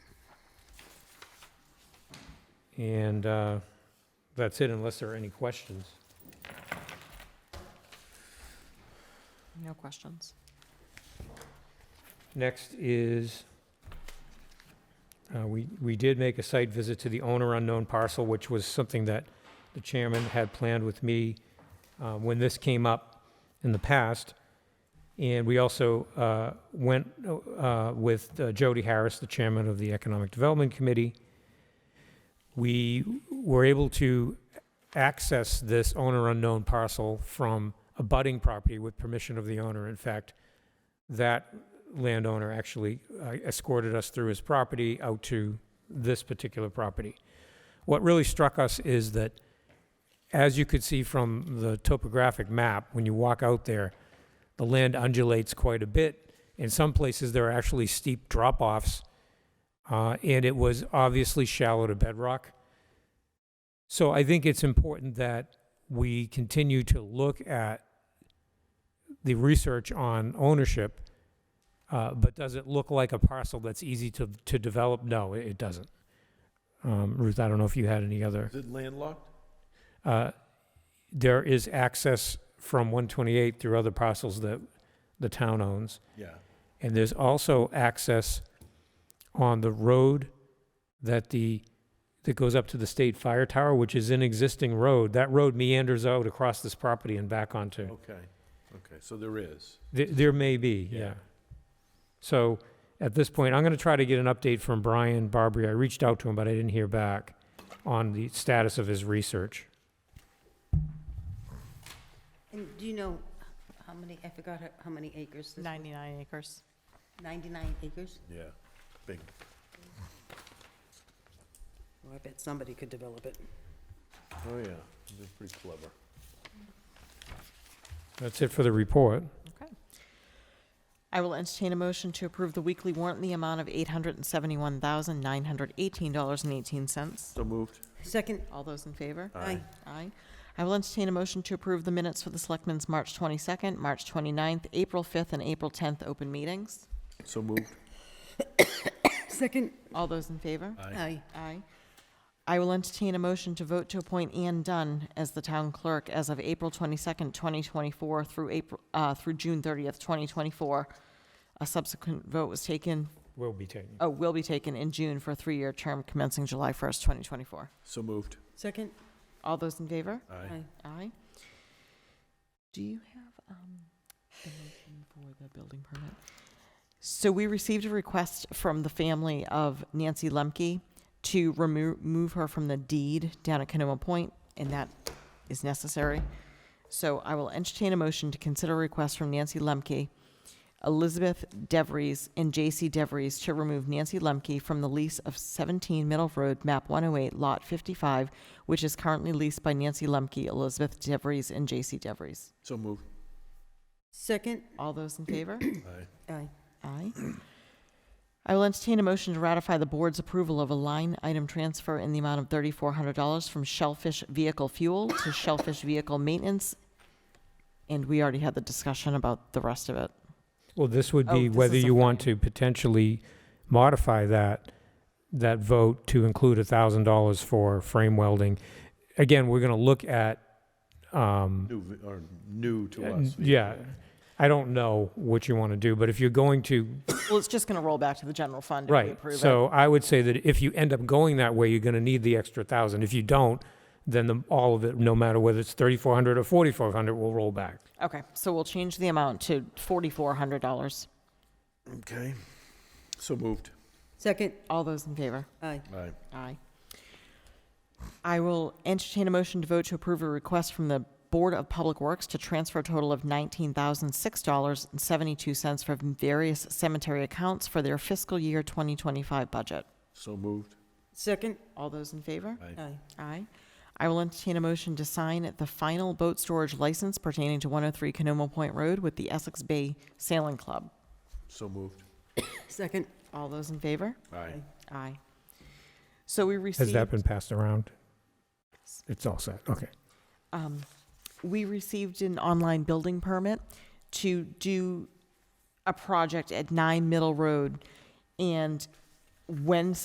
And uh, that's it unless there are any questions. No questions. Next is, uh, we we did make a site visit to the owner unknown parcel, which was something that the chairman had planned with me uh, when this came up in the past. And we also uh, went uh, with uh, Jody Harris, the chairman of the Economic Development Committee. We were able to access this owner unknown parcel from a budding property with permission of the owner. In fact, that landowner actually uh, escorted us through his property out to this particular property. What really struck us is that, as you could see from the topographic map, when you walk out there, the land undulates quite a bit. In some places, there are actually steep drop-offs, uh, and it was obviously shallow to bedrock. So I think it's important that we continue to look at the research on ownership uh, But does it look like a parcel that's easy to, to develop? No, it it doesn't. Um, Ruth, I don't know if you had any other. Is it landlocked? uh, There is access from 128 through other parcels that the town owns. Yeah. And there's also access on the road that the, that goes up to the state fire tower, which is an existing road. That road meanders out across this property and back onto. Okay, okay, so there is. There, there may be, Yeah. Oh. yeah. So at this point, I'm going to try to get an update from Brian Barbary. I reached out to him, but I didn't hear back on the status of his research. And do you know how many, I forgot how- how many acres this, 99 acres. 99 acres? Yeah, big. Well, I bet somebody could develop it. Oh, yeah, they're pretty clever. That's it for the report. Okay. I will entertain a motion to approve the weekly warrant in the amount of $871,918.18. So moved. Second, All those in favor? aye, Aye. I will entertain a motion to approve the minutes for the Selectmen's March 22nd, March 29th, April 5th, and April 10th open meetings. So moved. second, All those in favor? aye, Aye. I will entertain a motion to vote to appoint Ann Dunn as the town clerk as of April 22nd, 2024 through April, uh, through June 30th, 2024. A subsequent vote was taken, Will be taken. oh, will be taken in June for a three-year term commencing July 1st, 2024. So moved. second, All those in favor? Aye. aye. Aye. Do you have um, the motion for the building permit? So we received a request from the family of Nancy Lemke to remo- remove her from the deed down at Canoma Point, and that is necessary. So I will entertain a motion to consider a request from Nancy Lemke, Elizabeth DeVries, and J.C. DeVries to remove Nancy Lemke from the lease of 17 Middle Road, map 108, lot 55, which is currently leased by Nancy Lemke, Elizabeth DeVries, and J.C. DeVries. So moved. Second, All those in favor? Aye. aye, Aye. I will entertain a motion to ratify the board's approval of a line item transfer in the amount of $3,400 from Shellfish Vehicle Fuel to Shellfish Vehicle Maintenance. And we already had the discussion about the rest of it. Well, this would Oh, be this whether is a you want fine. to potentially modify that, that vote to include a thousand dollars for frame welding. Again, we're going to look at, um, New, vi- or new to uh, us. yeah, I don't know what you want to do, but if you're going to Well, it's just going to roll back to the general fund if we Right, approve it. so I would say that if you end up going that way, you're gonna need the extra thousand. If you don't, then the, all of it, no matter whether it's thirty-four hundred or forty-four hundred, will roll back. Okay, so we'll change the amount to $4,400. Okay. So moved. second, All those in favor? aye, Aye. Aye. I will entertain a motion to vote to approve a request from the Board of Public Works to transfer a total of $19,006.72 from various cemetery accounts for their fiscal year 2025 budget. So moved. second, All those in favor? Aye. aye, Aye. I will entertain a motion to sign the final boat storage license pertaining to 103 Canomo Point Road with the Essex Bay Sailing Club. So moved. second, All those in favor? Aye. Aye. So we received. Has that been passed around? It's all set, okay. um, we received an online building permit to do a project at Nine Middle Road. And when